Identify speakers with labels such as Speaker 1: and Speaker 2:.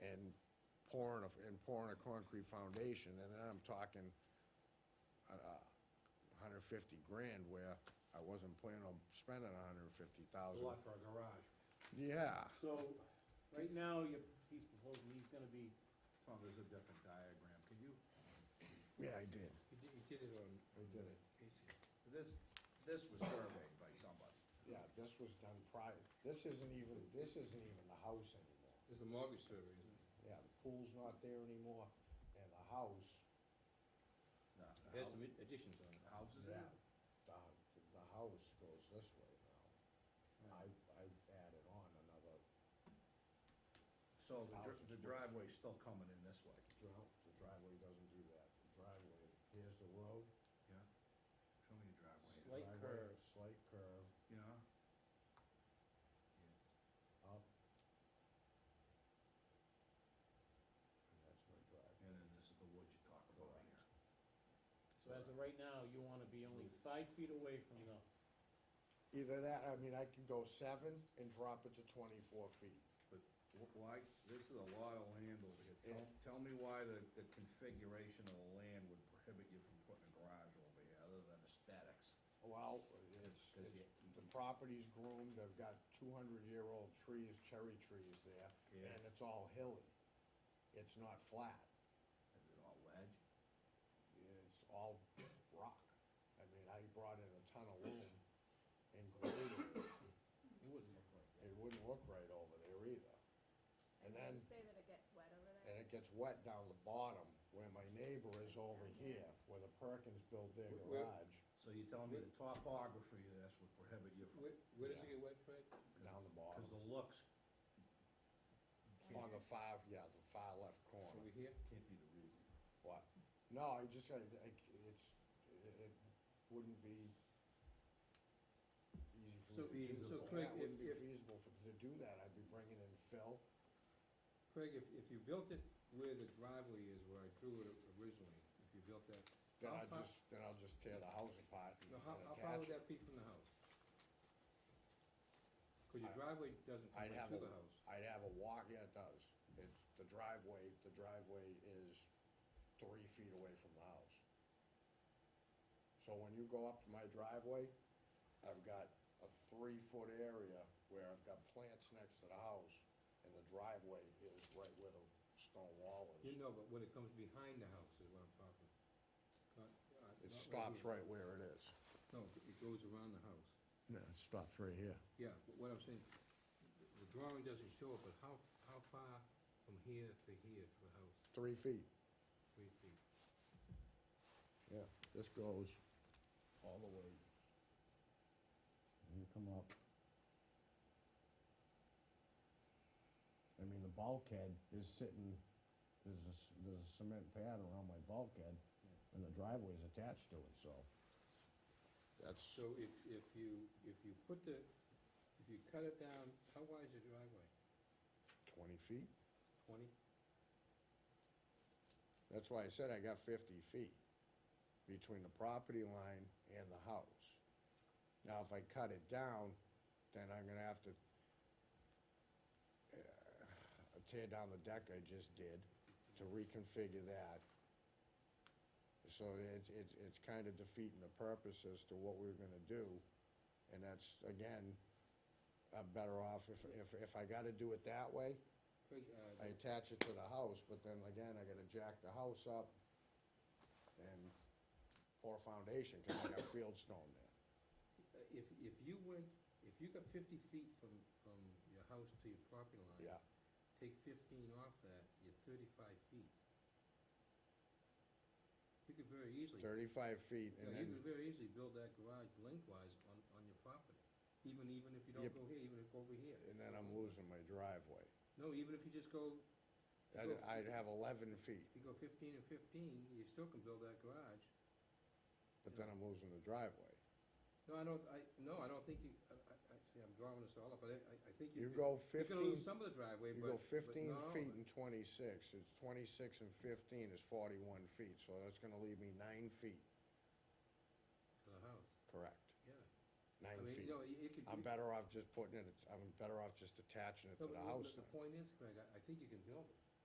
Speaker 1: pouring, a- and pouring a concrete foundation, and then I'm talking a hundred fifty grand where I wasn't planning on spending a hundred and fifty
Speaker 2: It's
Speaker 1: thousand.
Speaker 2: a lot for a garage.
Speaker 1: Yeah,
Speaker 3: So, right now, you're, he's proposing, he's gonna be,
Speaker 2: Tom, there's a different diagram, can you,
Speaker 1: yeah, I did.
Speaker 4: He did, he did it on,
Speaker 1: I did it.
Speaker 2: this, this was surveyed by somebody.
Speaker 1: Yeah, this was done prior, this isn't even, this isn't even the house anymore.
Speaker 4: it's a mortgage survey, isn't it?
Speaker 1: Yeah, the pool's not there anymore, and the house,
Speaker 2: No,
Speaker 4: They
Speaker 2: the
Speaker 4: had some
Speaker 2: hou-
Speaker 4: additions on it.
Speaker 2: the house is
Speaker 1: yeah,
Speaker 2: out.
Speaker 1: the, the house goes this way now. I, I added on another
Speaker 2: So the
Speaker 1: House
Speaker 2: dri-
Speaker 1: is
Speaker 2: the
Speaker 1: worth-
Speaker 2: driveway's still coming in this way.
Speaker 1: drive, the driveway doesn't do that, the driveway, here's the road.
Speaker 2: Yeah. Show me your driveway.
Speaker 3: Slight
Speaker 1: driveway,
Speaker 3: curve.
Speaker 1: Slight curve,
Speaker 2: Yeah.
Speaker 1: up. And that's my driveway.
Speaker 2: And then this is the wood you talk about
Speaker 1: Correct.
Speaker 2: here.
Speaker 3: so as of right now, you wanna be only five feet away from the,
Speaker 1: Either that, I mean, I can go seven and drop it to twenty-four feet.
Speaker 2: But wh- why, this is a lot of land over here. Tell, tell me why the, the configuration of the land would prohibit you from putting a garage over here, other than aesthetics.
Speaker 1: Well, it's,
Speaker 2: Does
Speaker 1: it's,
Speaker 2: it-
Speaker 1: the property's groomed, they've got two hundred-year-old trees, cherry trees there,
Speaker 2: Yeah.
Speaker 1: and it's all hilly. It's not flat,
Speaker 2: Is it all ledge?
Speaker 1: it's all rock. I mean, I brought in a ton of loom and graded it,
Speaker 4: It wouldn't look like that.
Speaker 1: it wouldn't look right over there either. And
Speaker 5: Did
Speaker 1: then,
Speaker 5: you say that it gets wet over
Speaker 1: and
Speaker 5: there?
Speaker 1: it gets wet down the bottom where my neighbor is over here, where the Perkins built their
Speaker 4: Wh- where-
Speaker 1: garage,
Speaker 2: So you're telling me the topography of this would prohibit you from,
Speaker 4: Where, where does
Speaker 1: Yeah.
Speaker 4: it get wet, Fred?
Speaker 1: down the
Speaker 2: cause
Speaker 1: bottom.
Speaker 2: the looks
Speaker 1: On the far, yeah, the far left corner.
Speaker 4: Over here?
Speaker 2: can't be the reason.
Speaker 1: What? No, I just, I, I, it's, it, it wouldn't be easy for
Speaker 4: So-
Speaker 1: me to do
Speaker 2: so
Speaker 1: that.
Speaker 4: Craig,
Speaker 1: It wouldn't
Speaker 4: if-
Speaker 1: be
Speaker 4: if-
Speaker 1: feasible for, to do that, I'd be bringing in fill,
Speaker 4: Craig, if, if you built it where the driveway is, where I drew it originally, if you built that,
Speaker 1: then
Speaker 4: How
Speaker 1: I'll
Speaker 4: far-
Speaker 1: just, then I'll just tear the house apart and
Speaker 4: now,
Speaker 1: and
Speaker 4: how, how far
Speaker 1: attach it.
Speaker 4: would that be from the house? Cause your
Speaker 1: I-
Speaker 4: driveway doesn't come
Speaker 1: I'd
Speaker 4: right
Speaker 1: have
Speaker 4: to
Speaker 1: a,
Speaker 4: the house.
Speaker 1: I'd have a walk, yeah, it does, it's the driveway, the driveway is three feet away from the house. So when you go up to my driveway, I've got a three-foot area where I've got plants next to the house, and the driveway is right where the stone wall
Speaker 4: You
Speaker 1: is.
Speaker 4: know, but when it comes behind the house is what I'm talking. Not- uh, not
Speaker 1: It stops
Speaker 4: here.
Speaker 1: right where it is.
Speaker 4: No, it goes around the house.
Speaker 1: No, it stops right here.
Speaker 4: Yeah, but what I'm saying, the- the drawing doesn't show it, but how, how far from here to here to the house,
Speaker 1: Three feet,
Speaker 4: three feet?
Speaker 1: yeah, this goes all the way. You come up. I mean, the bulkhead is sitting, there's a, c- there's a cement pad around my bulkhead, and the driveway's attached to it, so. That's,
Speaker 4: So if, if you, if you put the, if you cut it down, how wide is your driveway?
Speaker 1: twenty feet?
Speaker 4: Twenty?
Speaker 1: That's why I said I got fifty feet between the property line and the house. Now, if I cut it down, then I'm gonna have to uh, tear down the deck I just did to reconfigure that. So it's, it's, it's kind of defeating the purpose as to what we were gonna do. And that's, again, I'm better off if, if, if I gotta do it that way,
Speaker 4: Craig, uh,
Speaker 1: I attach it to the house, but then again, I gotta jack the house up and pour a foundation, cause I got field stone there.
Speaker 4: if, if you went, if you got fifty feet from, from your house to your property line.
Speaker 1: Yeah.
Speaker 4: Take fifteen off that, you're thirty-five feet. You could very easily.
Speaker 1: Thirty-five feet and then,
Speaker 4: Yeah, you could very easily build that garage lengthwise on, on your property, even, even if you don't
Speaker 1: Yep.
Speaker 4: go here, even if over here.
Speaker 1: and then I'm losing my driveway.
Speaker 4: No, even if you just go,
Speaker 1: I'd, I'd have eleven feet,
Speaker 4: if you go fifteen and fifteen, you still can build that garage.
Speaker 1: but then I'm losing the driveway.
Speaker 4: No, I don't, I, no, I don't think you, I, I, I- see, I'm drawing this all up, but I, I- I think
Speaker 1: You
Speaker 4: you. could-
Speaker 1: go
Speaker 4: You're
Speaker 1: 15
Speaker 4: gonna lose some of the driveway,
Speaker 1: You
Speaker 4: but.
Speaker 1: go
Speaker 4: but
Speaker 1: fifteen
Speaker 4: not all of
Speaker 1: feet
Speaker 4: it.
Speaker 1: and twenty-six, it's twenty-six and fifteen is forty-one feet, so that's gonna leave me nine feet,
Speaker 4: To the house,
Speaker 1: correct?
Speaker 4: yeah. I
Speaker 1: Nine
Speaker 4: mean,
Speaker 1: feet.
Speaker 4: you know, it it could.
Speaker 1: I'm
Speaker 4: it-
Speaker 1: better off just putting it, I'm better off just attaching it
Speaker 4: no,
Speaker 1: to
Speaker 4: but
Speaker 1: the house
Speaker 4: The
Speaker 1: then.
Speaker 4: point is, Craig, I, I think you can build it.